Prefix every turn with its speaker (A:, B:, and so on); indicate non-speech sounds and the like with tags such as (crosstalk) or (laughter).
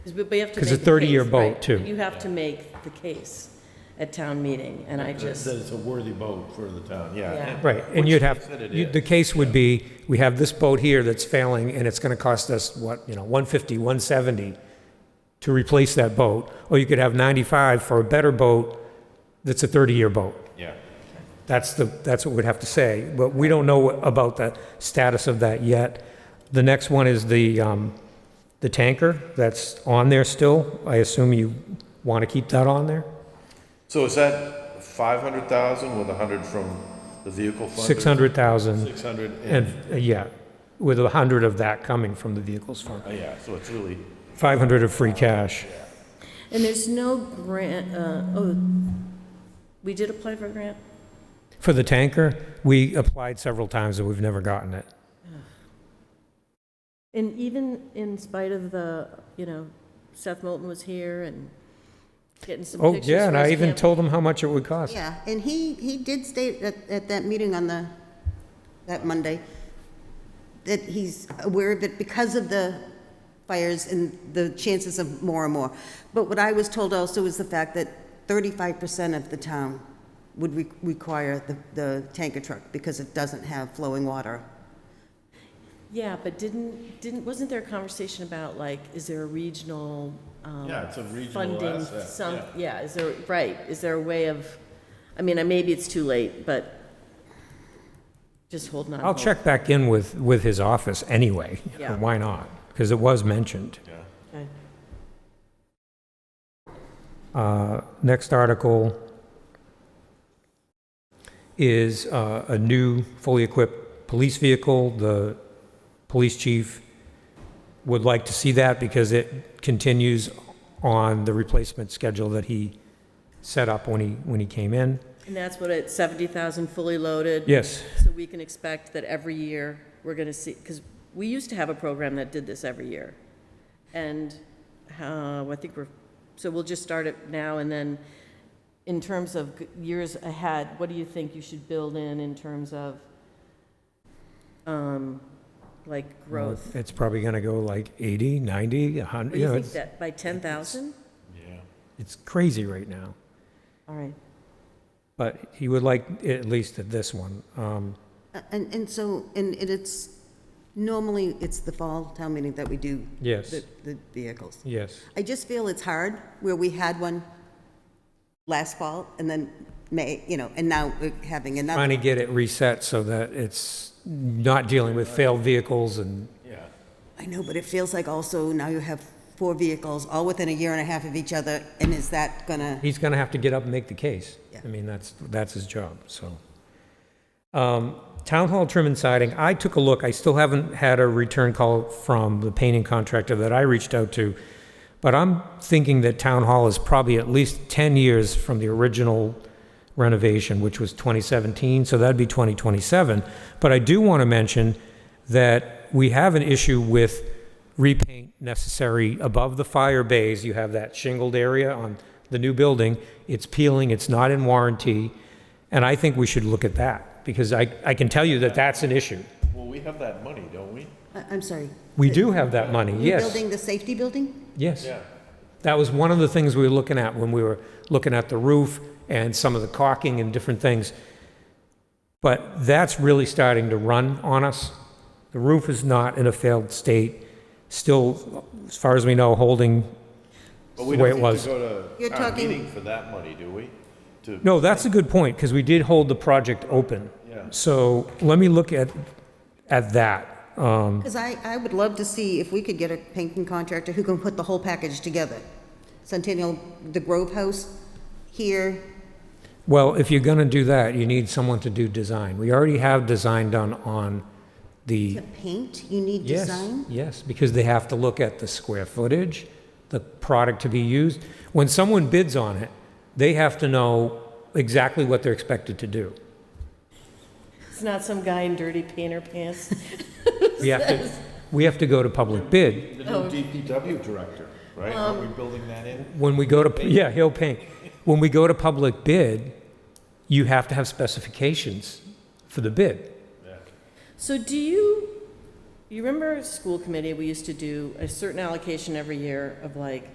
A: Because we we have to make the
B: 'Cause
A: case.
B: it's a 30-year boat,
A: right?
B: too.
A: You have to make the case at town meeting, and I just,
C: That it's a worthy boat for the town,
A: Yeah.
C: yeah.
B: Right, and
C: Which
B: you'd
C: they
B: have,
C: said it
B: you-
C: is.
B: the case would be, we have this boat here that's failing, and it's gonna cost us, what, you know, 150, 170 to replace that boat, or you could have 95 for a better boat that's a 30-year boat.
C: Yeah.
B: That's the, that's what we'd have to say, but we don't know about the status of that yet. The next one is the, um, the tanker that's on there still. I assume you want to keep that on there?
C: So is that five hundred thousand with a hundred from the vehicle fund?
B: 600,000,
C: Six hundred
B: and,
C: and,
B: uh, yeah, with a 100 of that coming from the vehicles fund.
C: oh, yeah, so it's really,
B: 500 of free cash.
A: and there's no grant, uh, oh, we did apply for a grant?
B: For the tanker, we applied several times and we've never gotten it.
A: And even in spite of the, you know, Seth Moulton was here and getting some
B: Oh,
A: pictures.
B: yeah, and
A: for
B: I
A: his
B: even
A: camp-
B: told them how much it would cost.
D: Yeah, and he, he did state at, at that meeting on the, that Monday, that he's aware of it because of the fires and the chances of more and more. But what I was told also is the fact that thirty-five percent of the town would re- require the, the tanker truck because it doesn't have flowing water.
A: Yeah, but didn't, didn't, wasn't there a conversation about like, is there a regional, um,
C: Yeah, it's a regional
A: funding,
C: asset,
A: some, yeah, is there, right, is there a way of, I mean, I- maybe it's too late, but just holding on.
B: I'll
A: hope.
B: check back in with, with his office anyway. You know,
A: Yeah.
B: (laughs) Why not? Because it was mentioned.
C: yeah.
A: Okay.
B: Uh, Next article is uh, a new fully equipped police vehicle. The police chief would like to see that because it continues on the replacement schedule that he set up when he, when he came in.
A: And that's what it's, seventy thousand fully loaded?
B: Yes,
A: So we can expect that every year, we're gonna see, because we used to have a program that did this every year. And, uh, I think we're, so we'll just start it now, and then, in terms of g- years ahead, what do you think you should build in, in terms of, um, like, growth?
B: it's probably going to go like 80, 90, 100,
A: What do
B: you know,
A: you think,
B: it's,
A: that, by ten thousand?
C: Yeah.
B: it's crazy right now.
A: All right,
B: But he would like, it at least at this one. Um,
D: Uh, And, and so, and it- it's, normally, it's the fall town meeting that we do
B: Yes,
D: the, the vehicles.
B: yes.
D: I just feel it's hard where we had one last fall and then May, you know, and now we're having
B: Trying
D: another.
B: to get it reset so that it's not dealing with failed vehicles and,
C: Yeah.
D: I know, but it feels like also now you have four vehicles all within a year and a half of each other, and is that gonna,
B: he's going to have to get up and make the case. I
D: Yeah.
B: mean, that's, that's his job, so. Um, Town hall trim and siding, I took a look, I still haven't had a return call from the painting contractor that I reached out to, but I'm thinking that town hall is probably at least 10 years from the original renovation, which was 2017, so that'd be 2027. But I do want to mention that we have an issue with repaint necessary above the fire bays. You have that shingled area on the new building. It's peeling, it's not in warranty, and I think we should look at that because I, I can tell you that that's an issue.
C: Well, we have that money, don't we?
D: I- I'm sorry.
B: We do have that money, yes,
D: Rebuilding the safety building?
B: yes.
C: Yeah.
B: That was one of the things we were looking at when we were looking at the roof and some of the caulking and different things. But that's really starting to run on us. The roof is not in a failed state, still, as far as we know, holding
C: But we
B: The way
C: don't
B: it
C: need
B: was.
C: to go to
D: You're
C: town
D: talking-
C: meeting for that money, do we? To,
B: No, that's a good point, because we did hold the project open.
C: Yeah.
B: So let me look at, at that. Um,
D: Because I, I would love to see if we could get a painting contractor who can put the whole package together. Centennial, the Grove House, here,
B: Well, if you're going to do that, you need someone to do design. We already have design done on the
D: to paint, you need
B: Yes,
D: design?
B: Yes, because they have to look at the square footage, the product to be used. When someone bids on it, they have to know exactly what they're expected to do.
A: it's not some guy in dirty painter (laughs) pants?
B: We have to, we have to go to public bid.
C: the new DPW director, right? Are we building that in?
B: When we go to, yeah, he'll paint. When we go to public bid, you have to have specifications for the bid.
A: So do you, You remember school committee, we used to do a certain allocation every year of like,